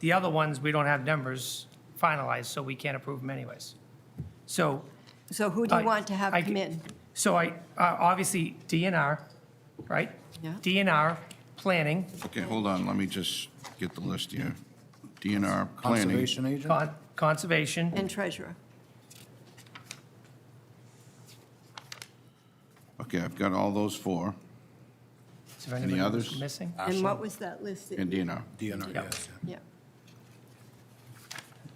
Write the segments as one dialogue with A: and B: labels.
A: The other ones, we don't have numbers finalized, so we can't approve them anyways. So,
B: So who do
A: I-
B: you want to have
A: I
B: come
A: c-
B: in?
A: so I, uh, obviously DNR, right?
B: Yeah.
A: DNR, planning,
C: Okay, hold on, let me just get the list here. DNR, planning.
D: Conservation agent?
A: con- conservation,
B: And treasurer?
C: Okay, I've got all those four,
A: is there anybody
C: others?
A: missing?
B: And what was that list? that-
C: and DNR.
D: DNR,
A: Yeah.
D: yes.
B: Yeah.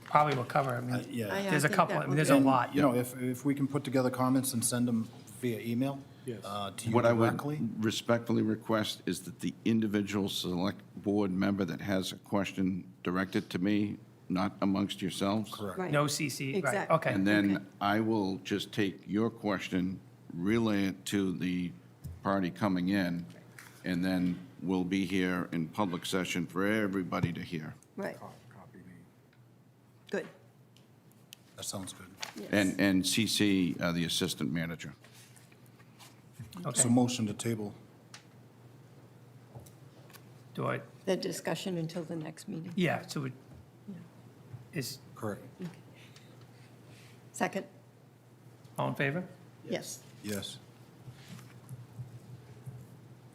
A: Probably will cover, I
D: Uh,
A: mean,
B: I,
D: Yeah.
B: uh,
A: there's a
B: think
A: couple, I
B: that
A: mean,
B: would
A: there's
B: be-
A: a
D: And,
A: lot.
D: You know, if, if we can put together comments and send them via email uh, to you
C: What I would
D: directly.
C: respectfully request is that the individual select board member that has a question directed to me, not amongst yourselves. Correct.
B: Right.
A: No CC, right,
B: Exactly.
A: okay.
C: And then I will just take your question, relay it to the party coming in, and then we'll be here in public session for everybody to hear.
B: Right. Good.
D: That sounds good.
C: And, and CC, uh, the assistant manager.
D: So
A: Okay,
D: motion to table.
A: do I,
B: The discussion until the next meeting.
A: yeah, so it is,
D: Correct.
B: Second?
A: all in favor?
B: Yes.
D: Yes.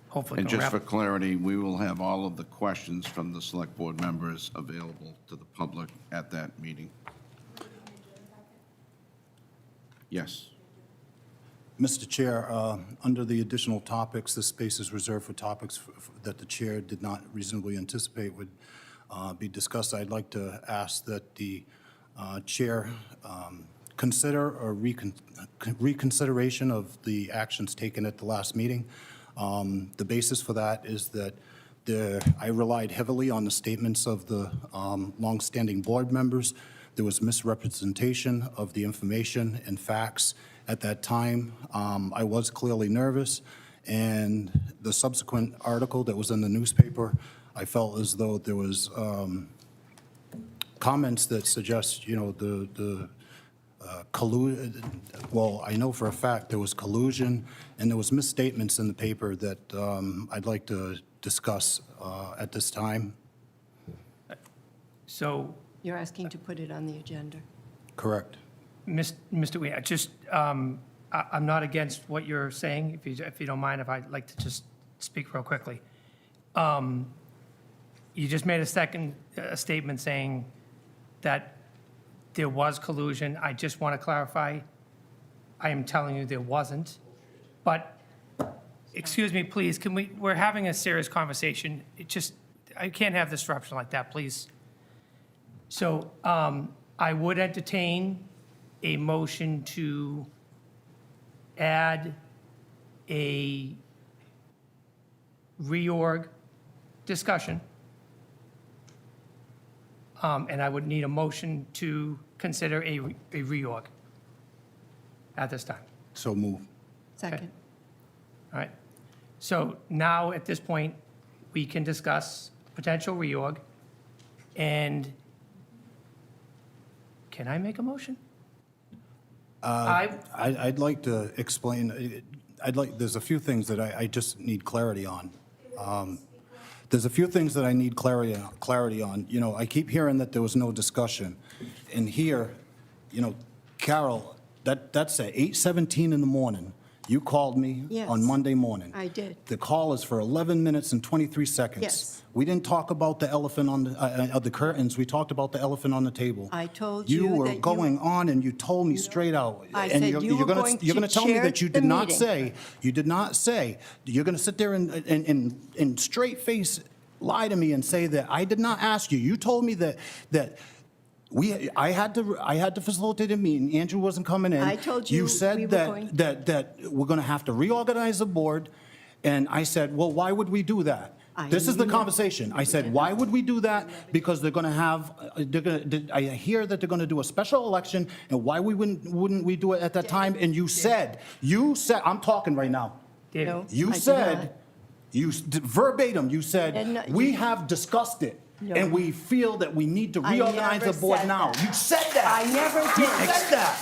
A: Hopefully.
C: And
A: it'll
C: just for
A: wrap-
C: clarity, we will have all of the questions from the select board members available to the public at that meeting. Yes.
D: Mr. Chair, uh, under the additional topics, this space is reserved for topics f- f- that the chair did not reasonably anticipate would uh, be discussed. I'd like to ask that the uh, chair um, consider or recon- reconsideration of the actions taken at the last meeting. Um, The basis for that is that there, I relied heavily on the statements of the um, longstanding board members. There was misrepresentation of the information and facts at that time. Um, I was clearly nervous, and the subsequent article that was in the newspaper, I felt as though there was um, comments that suggest, you know, the, the uh, collu, well, I know for a fact there was collusion, and there was misstatements in the paper that um, I'd like to discuss uh, at this time.
A: So,
B: You're asking to put it on the agenda.
D: Correct.
A: Mis- Mr. Weah, just, um, I- I'm not against what you're saying, if you, if you don't mind, if I'd like to just speak real quickly. Um, You just made a second, a statement saying that there was collusion. I just want to clarify, I am telling you there wasn't. But, excuse me, please, can we, we're having a serious conversation. It just, I can't have disruption like that, please. So um, I would entertain a motion to add a reorg discussion. Um, And I would need a motion to consider a re- a reorg at this time.
D: So move.
B: Second?
A: All right. So now, at this point, we can discuss potential reorg, and can I make a motion? I,
D: I- I'd like to explain, I'd like, there's a few things that I I just need clarity on. Um, There's a few things that I need clarity, clarity on. You know, I keep hearing that there was no discussion. And here, you know, Carol, that, that's at 8:17 in the morning. You called me on
B: Yes.
D: Monday morning.
B: I did.
D: The call is for 11 minutes and 23 seconds.
B: Yes.
D: We didn't talk about the elephant on, the uh, uh, the curtains, we talked about the elephant on the table.
B: I told you
D: You were
B: that you-
D: going on and you told me straight out.
B: I
D: And
B: said
D: you're-
B: you
D: you're
B: were
D: gonna-
B: going
D: You're
B: to
D: going to tell me
B: chair
D: that you
B: the
D: did not
B: meeting.
D: say, you did not say, you're going to sit there and, and, and, and straight face lie to me and say that I did not ask you. You told me that, that we, I had to, I had to facilitate a meeting. Andrew wasn't coming in.
B: I told you
D: You
B: we were
D: said
B: going-
D: that, that, that we're going to have to reorganize the board. And I said, well, why would we do that?
B: I
D: This is the
B: knew-
D: conversation. I said, why would we do that? Because they're going to have, uh, they're going to, I hear that they're going to do a special election, and why we wouldn't, wouldn't we do it at that time? And you said, you said, I'm talking right now.
A: David,
B: No. I
D: You
B: did not.
D: said, you, s- verbatim, you
B: I did
D: said,
B: not-
D: we
B: you-
D: have discussed it, and
B: No.
D: we feel that we need to
B: I
D: reorganize the
B: never
D: board
B: said
D: now.
B: that.
D: You said that.
B: I never
D: You
B: did.
D: said that.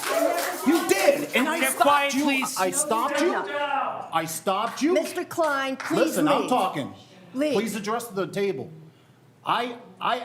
D: You did, and I
A: Get
D: stopped
A: quiet,
D: you.
A: please.
D: I
A: No,
D: stopped
B: did
D: you.
B: not.
D: I stopped you.
B: Mr. Klein, please
D: Listen, I'm
B: leave.
D: talking.
B: Leave.
D: Please address the table. I, I